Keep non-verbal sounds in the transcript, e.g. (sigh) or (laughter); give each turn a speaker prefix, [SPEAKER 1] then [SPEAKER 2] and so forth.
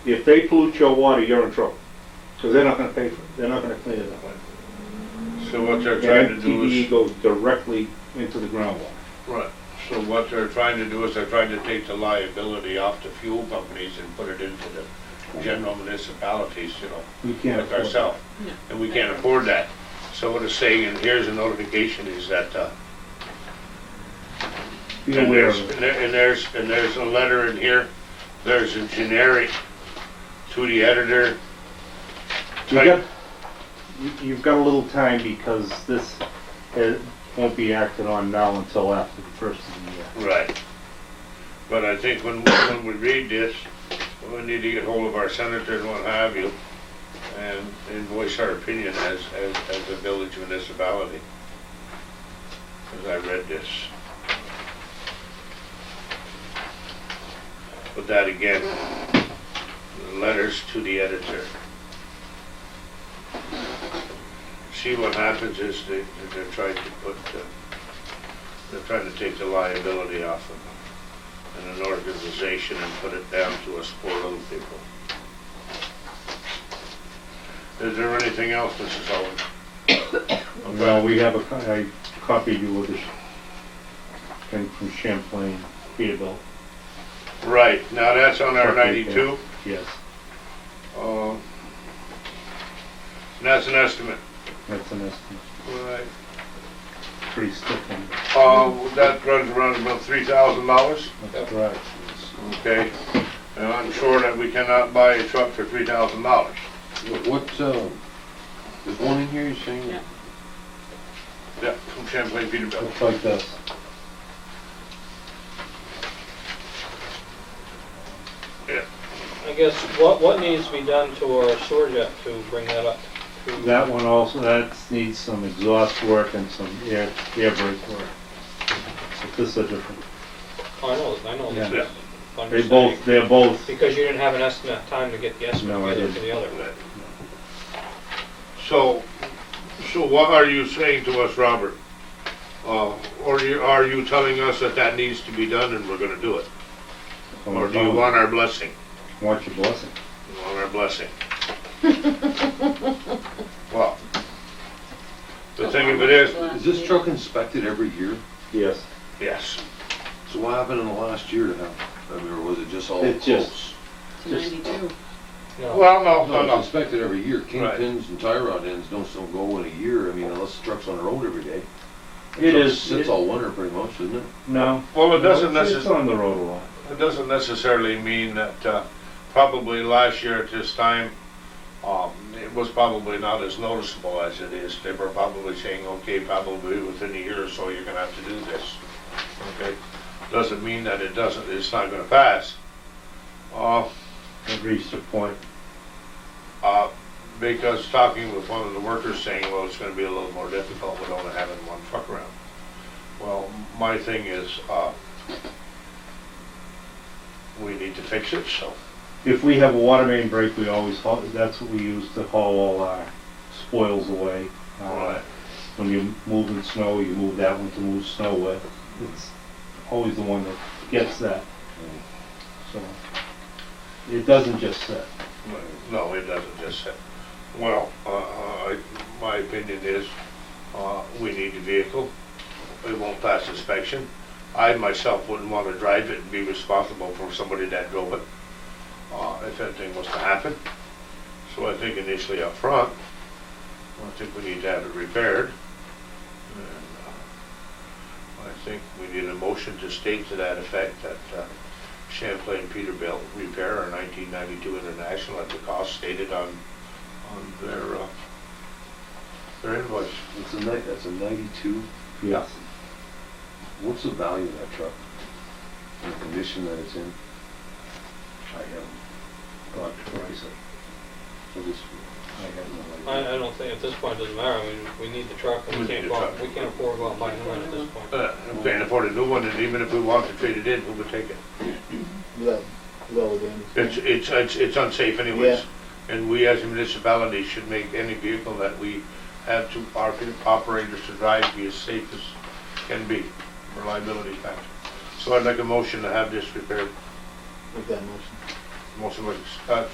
[SPEAKER 1] If they pollute your water, you're in trouble, because they're not gonna pay for it, they're not gonna clean it up.
[SPEAKER 2] So what they're trying to
[SPEAKER 1] And
[SPEAKER 2] do
[SPEAKER 1] TDE
[SPEAKER 2] is,
[SPEAKER 1] goes directly into the groundwater.
[SPEAKER 2] right, so what they're trying to do is they're trying to take the liability off the fuel companies and put it into the general municipalities, you know,
[SPEAKER 1] We can't
[SPEAKER 2] like
[SPEAKER 1] afford it.
[SPEAKER 2] ourselves. And we can't afford that. So what it's saying, and here's a notification, is that, uh,
[SPEAKER 1] Be
[SPEAKER 2] And
[SPEAKER 1] aware
[SPEAKER 2] there's,
[SPEAKER 1] of it.
[SPEAKER 2] and there- and there's, and there's a letter in here, there's a generic to the editor.
[SPEAKER 1] You've got, you- you've got a little time because this uh, won't be acted on now until after the first of the year.
[SPEAKER 2] Right. But I think when, when we read this, we need to get hold of our senator and what have you, and, and voice our opinion as, as, as a village municipality. As I read this. But that again, letters to the editor. See, what happens is they, they're trying to put, uh, they're trying to take the liability off of and an organization and put it down to us poor little people. Is there anything else, Mrs. Owen?
[SPEAKER 1] Well, we have a, co- I copied you of this thing from Champlain, Peterbilt,
[SPEAKER 2] Right, now that's on our
[SPEAKER 1] Okay,
[SPEAKER 2] ninety-two,
[SPEAKER 1] yes,
[SPEAKER 2] uh, and that's an estimate.
[SPEAKER 1] that's an estimate,
[SPEAKER 2] Right.
[SPEAKER 1] pretty stiff one,
[SPEAKER 2] Uh, that runs around about three thousand dollars,
[SPEAKER 1] but that's right.
[SPEAKER 2] okay? And I'm sure that we cannot buy a truck for three thousand dollars.
[SPEAKER 3] What- What, uh, there's one in here, you're saying,
[SPEAKER 4] Yeah.
[SPEAKER 2] Yeah, from Champlain Peterbilt.
[SPEAKER 1] Looks like this,
[SPEAKER 5] I guess, what, what needs to be done to our sewer jet to bring that up? to-
[SPEAKER 1] that one also, that needs some exhaust work and some air, air brake work. But this is a different,
[SPEAKER 5] I know, I know.
[SPEAKER 1] Yeah.
[SPEAKER 2] Yeah.
[SPEAKER 5] I'm
[SPEAKER 1] they
[SPEAKER 5] just
[SPEAKER 1] both,
[SPEAKER 5] saying,
[SPEAKER 1] they're both,
[SPEAKER 5] Because you didn't have an estimate, time to get the estimate
[SPEAKER 1] No, I
[SPEAKER 5] together for
[SPEAKER 1] didn't.
[SPEAKER 5] the other.
[SPEAKER 2] So, so what are you saying to us, Robert? Uh, or you, are you telling us that that needs to be done and we're gonna do it? Or do you want our blessing?
[SPEAKER 1] want your blessing.
[SPEAKER 2] You want our (laughs) blessing? Well, the thing of it is,
[SPEAKER 3] is this truck inspected every year?
[SPEAKER 1] Yes,
[SPEAKER 2] yes,
[SPEAKER 3] So what happened in the last year to have, I mean, or was it just all
[SPEAKER 1] It just-
[SPEAKER 3] close?
[SPEAKER 4] It's 92.
[SPEAKER 5] No,
[SPEAKER 2] well, no,
[SPEAKER 3] No,
[SPEAKER 2] no,
[SPEAKER 3] it's
[SPEAKER 2] no,
[SPEAKER 3] inspected every year,
[SPEAKER 2] Right.
[SPEAKER 3] kingpins and tie rod ends don't still go in a year, I mean, unless the truck's on the road every day. The
[SPEAKER 1] It
[SPEAKER 3] truck
[SPEAKER 1] is-
[SPEAKER 3] Sits
[SPEAKER 1] it-
[SPEAKER 3] all winter pretty much, isn't it?
[SPEAKER 1] no.
[SPEAKER 2] well, it doesn't
[SPEAKER 1] It's-
[SPEAKER 2] necessarily.
[SPEAKER 1] It's on the road a lot.
[SPEAKER 2] It doesn't necessarily mean that, uh, probably last year at this time, um, it was probably not as noticeable as it is. They were probably saying, okay, probably within a year or so, you're gonna have to do this. Okay? Doesn't mean that it doesn't, it's not gonna pass. Uh,
[SPEAKER 1] It reached a point,
[SPEAKER 2] uh, because talking with one of the workers saying, well, it's gonna be a little more difficult with only having one truck around. Well, my thing is, uh, we need to fix it, so
[SPEAKER 1] if we have a water main break, we always haul, that's what we use to haul all our spoils away. Uh,
[SPEAKER 2] Right.
[SPEAKER 1] When you're moving snow, you move that one to move snow with. It's always the one that gets that. So, it doesn't just sit.
[SPEAKER 2] No, it doesn't just say. Well, uh, I- my opinion is, uh, we need the vehicle. It won't pass inspection. I myself wouldn't want to drive it and be responsible for somebody that drove it, uh, if anything was to happen. So I think initially up front, I think we need to have it repaired. And, uh, I think we need a motion to state to that effect that uh, Champlain Peterbilt repair our 1992 International at the cost stated on, on their, uh, their invoice.
[SPEAKER 3] It's a ni, that's a ninety-two,
[SPEAKER 1] Yes.
[SPEAKER 3] what's the value of that truck? And The condition that it's in?
[SPEAKER 1] I have got twice it.
[SPEAKER 3] So this,
[SPEAKER 1] I have no
[SPEAKER 5] I,
[SPEAKER 1] idea.
[SPEAKER 5] I don't think, at this point, it doesn't matter, I mean, we need the truck, and
[SPEAKER 2] We
[SPEAKER 5] we
[SPEAKER 2] need
[SPEAKER 5] can't
[SPEAKER 2] the
[SPEAKER 5] go, out-
[SPEAKER 2] truck.
[SPEAKER 5] we can't afford to go out and buy another one at this point.
[SPEAKER 2] Uh, We can't afford a new one, and even if we want to trade it in, we would take it.
[SPEAKER 6] Low, low then.
[SPEAKER 2] It's, it's, it's it's unsafe anyways. And we as a municipality should make any vehicle that we have to, our operators to drive be as safe as can be, reliability factor. So I'd like a motion to have this repaired.
[SPEAKER 6] Make that motion.
[SPEAKER 2] Motion by uh, Scott,